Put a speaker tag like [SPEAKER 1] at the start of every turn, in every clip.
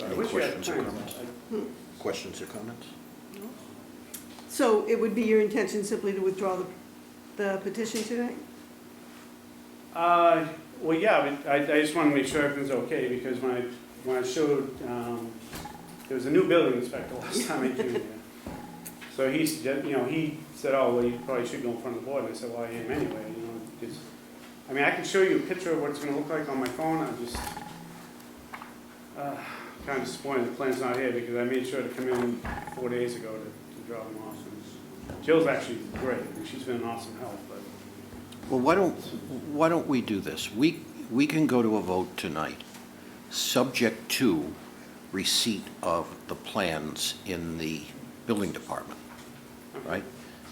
[SPEAKER 1] Any
[SPEAKER 2] I wish we had
[SPEAKER 1] questions or
[SPEAKER 2] time.
[SPEAKER 1] comments? Questions or comments?
[SPEAKER 3] So it would be your intention simply to withdraw the, the petition tonight?
[SPEAKER 2] Uh, well, yeah, but I, I just want to make sure everything's okay, because when I, when I showed, um, there was a new building inspector last time I came here. So he suggested, you know, he said, oh, well, you probably should go in front of the board, and I said, well, I am anyway, you know, just, I mean, I can show you a picture of what it's gonna look like on my phone, I'm just, uh, kind of disappointed the plan's not here, because I made sure to come in four days ago to, to draw them off. and Jill's actually great, and she's been an awesome help, but
[SPEAKER 1] Well, why don't, why don't we do this? We, we can go to a vote tonight, subject to receipt of the plans in the building department, right?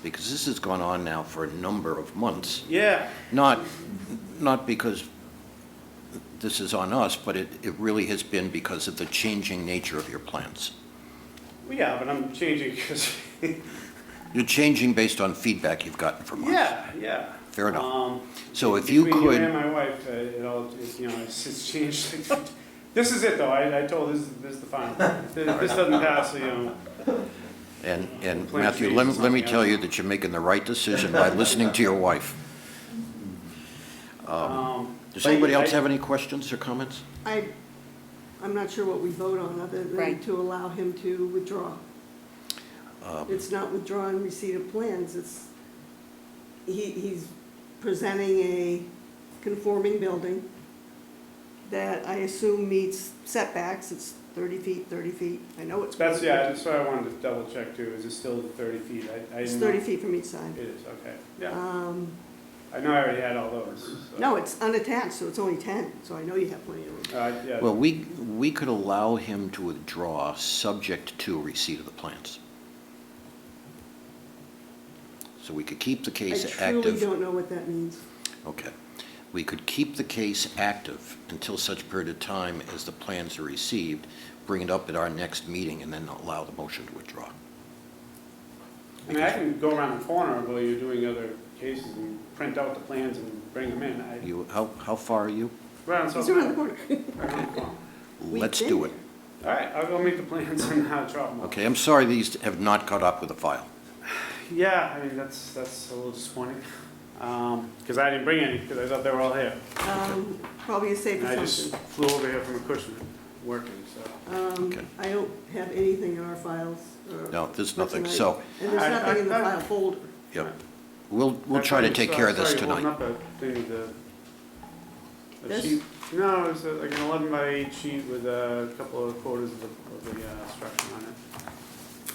[SPEAKER 1] Because this has gone on now for a number of months,
[SPEAKER 2] Yeah,
[SPEAKER 1] not, not because this is on us, but it, it really has been because of the changing nature of your plans.
[SPEAKER 2] well, yeah, but I'm changing because,
[SPEAKER 1] You're changing based on feedback you've gotten from us.
[SPEAKER 2] yeah, yeah.
[SPEAKER 1] Fair enough.
[SPEAKER 2] Um,
[SPEAKER 1] So if you
[SPEAKER 2] Between
[SPEAKER 1] could-
[SPEAKER 2] you and my wife, uh, it all, it's, you know, it's, it's changed. This is it though, I, I told, this, is- this is the final. This this doesn't pass, you know,
[SPEAKER 1] And, and
[SPEAKER 2] Plant
[SPEAKER 1] Matthew,
[SPEAKER 2] trees
[SPEAKER 1] let,
[SPEAKER 2] and
[SPEAKER 1] let me
[SPEAKER 2] something
[SPEAKER 1] tell
[SPEAKER 2] else.
[SPEAKER 1] you that you're making the right decision by listening to your wife.
[SPEAKER 2] um.
[SPEAKER 1] Does
[SPEAKER 2] but
[SPEAKER 1] anybody
[SPEAKER 2] I-
[SPEAKER 1] else have any questions or comments?
[SPEAKER 3] I, I'm not sure what we vote on, other than
[SPEAKER 4] Right.
[SPEAKER 3] to allow him to withdraw.
[SPEAKER 1] Um,
[SPEAKER 3] It's not withdrawing receipt of plans, it's, he, he's presenting a conforming building that I assume meets setbacks, it's thirty feet, thirty feet, I know it's.
[SPEAKER 2] That's, yeah, that's what I wanted to double check too, is it still thirty feet? I, I.
[SPEAKER 3] It's
[SPEAKER 2] didn't
[SPEAKER 3] thirty
[SPEAKER 2] know.
[SPEAKER 3] feet from each side.
[SPEAKER 2] It is, okay, yeah.
[SPEAKER 3] Um,
[SPEAKER 2] I know I already had all those. so-
[SPEAKER 3] no, it's unattached, so it's only ten, so I know you have plenty of room.
[SPEAKER 2] Uh, yeah.
[SPEAKER 1] Well, we, we could allow him to withdraw subject to receipt of the plans. So we could keep the
[SPEAKER 3] I
[SPEAKER 1] case
[SPEAKER 3] truly
[SPEAKER 1] active.
[SPEAKER 3] don't know what that means.
[SPEAKER 1] Okay. We could keep the case active until such period of time as the plans are received, bring it up at our next meeting, and then allow the motion to withdraw.
[SPEAKER 2] I mean, I can go around the corner while you're doing other cases and print out the plans and bring them in. I,
[SPEAKER 1] You, how, how far are you?
[SPEAKER 2] around
[SPEAKER 3] It's
[SPEAKER 2] South.
[SPEAKER 3] around the corner.
[SPEAKER 2] around the corner.
[SPEAKER 3] We've
[SPEAKER 1] Let's
[SPEAKER 3] been
[SPEAKER 1] do it.
[SPEAKER 3] there.
[SPEAKER 2] All right, I'll go make the plans and uh, drop them off.
[SPEAKER 1] Okay, I'm sorry these have not caught up with the file.
[SPEAKER 2] Yeah, I mean, that's, that's a little disappointing, because I didn't bring any, because I thought they were all here.
[SPEAKER 3] Um, Probably a safe
[SPEAKER 2] And I just
[SPEAKER 3] assumption.
[SPEAKER 2] flew over here from a cushion, working, so.
[SPEAKER 1] Okay.
[SPEAKER 3] Um, I don't have anything in our files. or-
[SPEAKER 1] No, there's
[SPEAKER 3] for
[SPEAKER 1] nothing,
[SPEAKER 3] tonight.
[SPEAKER 1] so,
[SPEAKER 3] And there's
[SPEAKER 2] I-
[SPEAKER 3] nothing in the
[SPEAKER 2] I- I-
[SPEAKER 3] file folder.
[SPEAKER 1] yep, we'll, we'll try to take care of this
[SPEAKER 2] Sorry, holding
[SPEAKER 1] tonight.
[SPEAKER 2] up a thing, the- a
[SPEAKER 3] This?
[SPEAKER 2] sheet- No, it was uh, like an 11 by 8 sheet with a couple of quarters of the, of the uh, structure on it.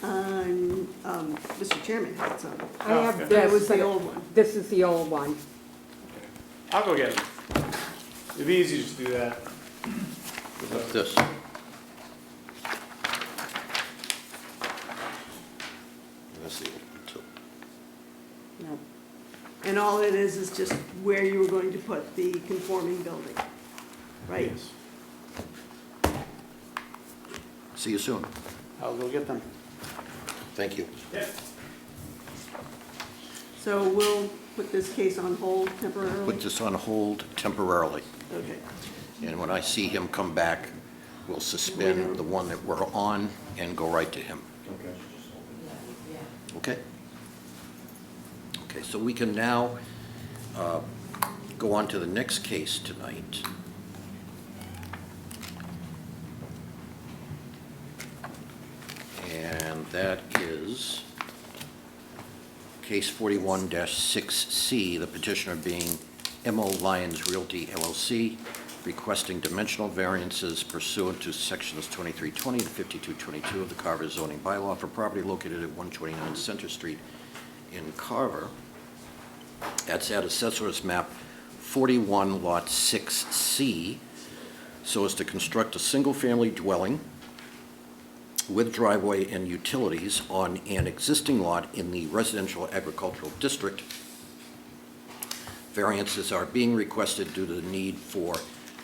[SPEAKER 3] Um, um, Mr. Chairman had some.
[SPEAKER 4] I
[SPEAKER 2] Oh,
[SPEAKER 4] have
[SPEAKER 2] okay.
[SPEAKER 3] That was
[SPEAKER 4] this,
[SPEAKER 3] the
[SPEAKER 4] but
[SPEAKER 3] old one.
[SPEAKER 4] this is the old one.
[SPEAKER 2] I'll go get it. It'd be easy to just do that.
[SPEAKER 1] What's This, That's the old one, too.
[SPEAKER 4] No.
[SPEAKER 3] And all it is, is just where you were going to put the conforming building, right?
[SPEAKER 2] Yes.
[SPEAKER 1] See you soon.
[SPEAKER 2] I'll go get them.
[SPEAKER 1] Thank you.
[SPEAKER 2] Yeah.
[SPEAKER 3] So we'll put this case on hold temporarily.
[SPEAKER 1] Put this on hold temporarily,
[SPEAKER 3] Okay.
[SPEAKER 1] and when I see him come back, we'll suspend the one that we're on and go right to him. Okay? Okay, so we can now uh, go on to the next case tonight. And that is case 41-6C, the petitioner being MO Lyons Realty LLC, requesting dimensional variances pursuant to sections 2320 and 5222 of the Carver zoning bylaw for property located at 129 Center Street in Carver. That's at Assessor's Map 41, Lot 6C, so as to construct a single-family dwelling with driveway and utilities on an existing lot in the residential agricultural district. Variances are being requested due to the need for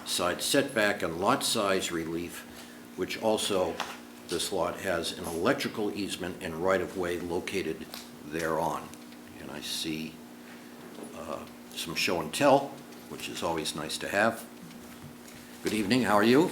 [SPEAKER 1] side setback and lot size relief, which also, this lot has an electrical easement and right-of-way located thereon. And I see uh, some show and tell, which is always nice to have. Good evening, how are you?